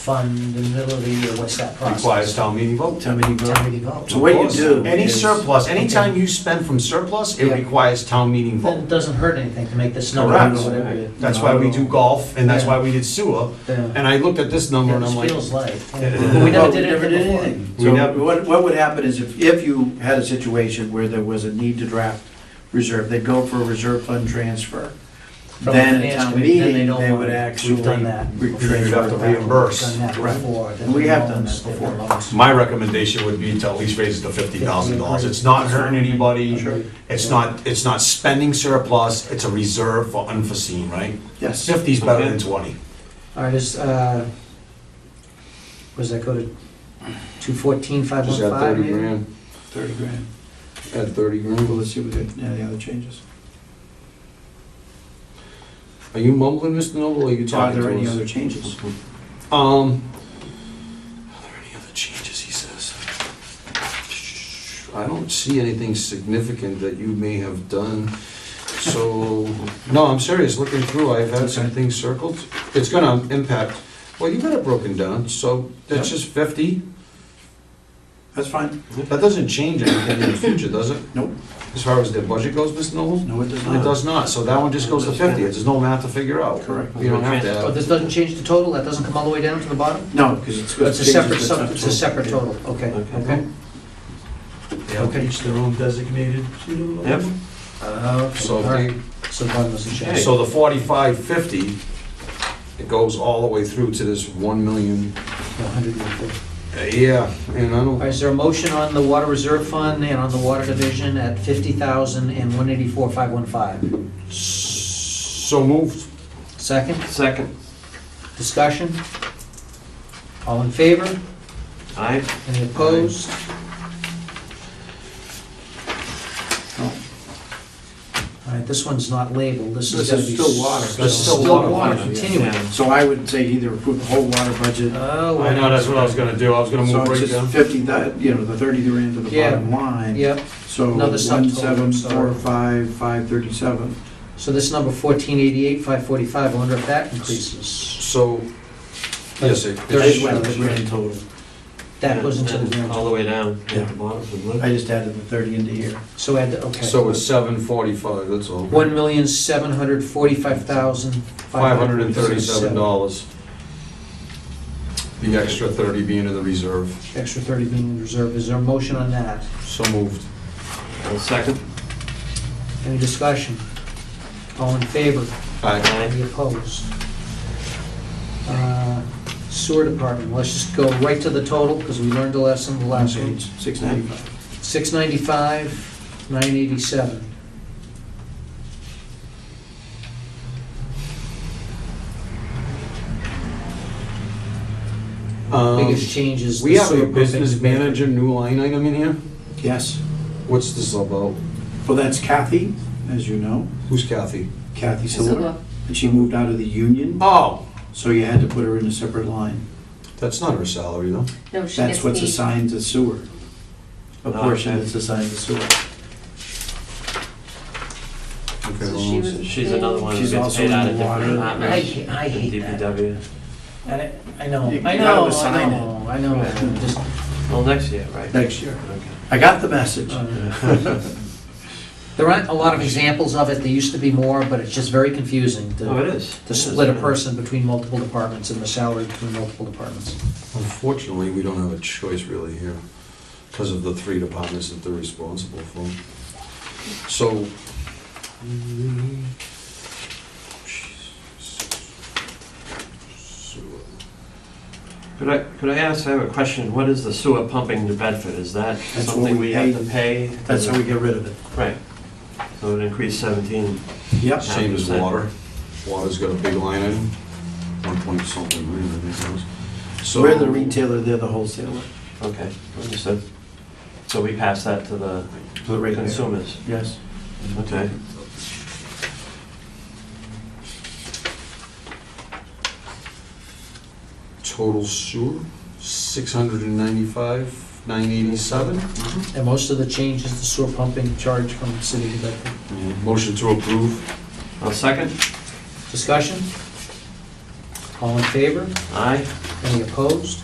fundability, or what's that process? Requires town meeting vote. Town meeting vote. Town meeting vote. So what you do Any is- surplus, anytime you spend from surplus, it Yeah. requires town meeting Then vote. it doesn't hurt anything to make this number, Correct. or whatever it That's why we do golf, and that's Yeah. why we did sewer. Yeah, And I looked at this number and I'm It like, feels like, Yeah. we never Well, did never anything before. We nev- So what, what would happen is if, if you had a situation where there was a need to draft reserve, they'd go for a reserve fund transfer. From Then the at finance town committee, then they meeting, don't they want would it. actually. We've done that. re- You'd you'd have to transfer it back. reimburse. Done that Right. before. then We the have done loans, that the before. loans. My recommendation would be to at least raise it to fifty thousand dollars. It's not hurting anybody. Sure. It's not, it's not spending surplus. It's a reserve for unforeseen, right? Yes. Fifty's better than twenty. All right, is, uh, was that go to two fourteen, five one Just add five thirty maybe? grand, Thirty grand. add thirty Well, grand. let's see what the, yeah, the other changes. Are you mumbling, Mr. Noble, or are you Are talking there any to other changes? us? Um, are there any other changes, he says? I don't see anything significant that you may have done, so, no, I'm serious, looking through, I've had some things circled. It's gonna impact, well, you got it broken down, so that's Yeah. just fifty. That's fine. That doesn't change anything in the future, does it? Nope. Uh, As far as their budget goes, Mr. Noble? No, it does It not. does not, so that one just goes to fifty, there's no math to figure out. Correct. You don't have to Oh, have. this doesn't change the total, that doesn't come all the way down to the bottom? No, because it's. It's a separate, changes, sub- not it's a separate total, okay, okay. They'll each their own designated. Yep. Uh, So, all right. So the bottom doesn't change. so the forty-five fifty, it goes all the way through to this one million, Yeah, 150. Uh, yeah, and All I right, don't, is there a motion on the water reserve fund and on the water division at 50,000 and 184,515? so moved. Second, Second. discussion? All in favor? Aye. Any opposed? No. All right, this one's not labeled, this is This gonna is be... still water. s- That's still Still water. water, Yeah. continuing. So I would say either approve the whole water budget Oh, I know, that's what I was gonna do. I was gonna So move right it's down. just fifty, thou- you know, the thirty grand to the Yeah. bottom line. Yep, So Another one, subtotal, seven, sorry. four, five, five, thirty-seven. so this number 1488, 545, I wonder if that increases? So, yes, it, There is it's- one. The grand total. That goes into the And All grand, the way down Yeah. at the bottom. the I blue. just added the thirty into here. so add, the- okay. so it's seven forty-five, that's all. One million, seven hundred forty-five thousand, Five hundred and thirty-seven dollars. The extra thirty being in the reserve, Extra thirty being in reserve, is there a motion on that? so moved. I'll Second. Any discussion? All in favor? Aye. Any Aye. opposed? Uh, Sewer department, let's just go right to the total, because we learned a lesson the last Okay, one. Six ninety-five. Six ninety-five, nine eighty-seven. Um, Biggest change is We the have sewer a pumping. business manager new line item in here? Yes. What's this about? Well, that's Kathy, as you know, Who's Kathy? Kathy Silver. And she moved out of the union, Oh, so you had to put her in a separate line. that's not her salary, though. No, That's she gets what's paid. assigned to sewer. A Ah, portion okay. that's assigned to sewer. Okay, hold on a So she was second. She's another one who She's gets also paid out in of the different water. I departments. hate, I hate that. DPW. And I- I know, You- I you gotta know, I assign know, I know. Right. Just- Well, next year, right? Next year. Okay. I got the message. Ah. There aren't a lot of examples of it, there used to be more, but it's just very confusing Oh, to, it is. to split a It is, yeah. person between multiple departments and the salary between multiple departments. Unfortunately, we don't have a choice really here because of the three departments that they're responsible for. So. Could I, could I ask, I have a question, what is the sewer pumping to Bedford? Is that what something we we have to pay? That's how we get rid of it. Right. So it increased seventeen. Yep. Same as water. Water's got a big line in, one point something million, I think it was. So- We're the retailer, they're the wholesaler. Okay, understood. So we pass that to the So right there. consumers? Yes. Okay. Total sewer, six hundred and ninety-five, nine eighty-seven. And most of the change is the sewer pumping charge from the city to Bedford. Motion to approve. I'll second. Discussion? All in favor? Aye? Any opposed?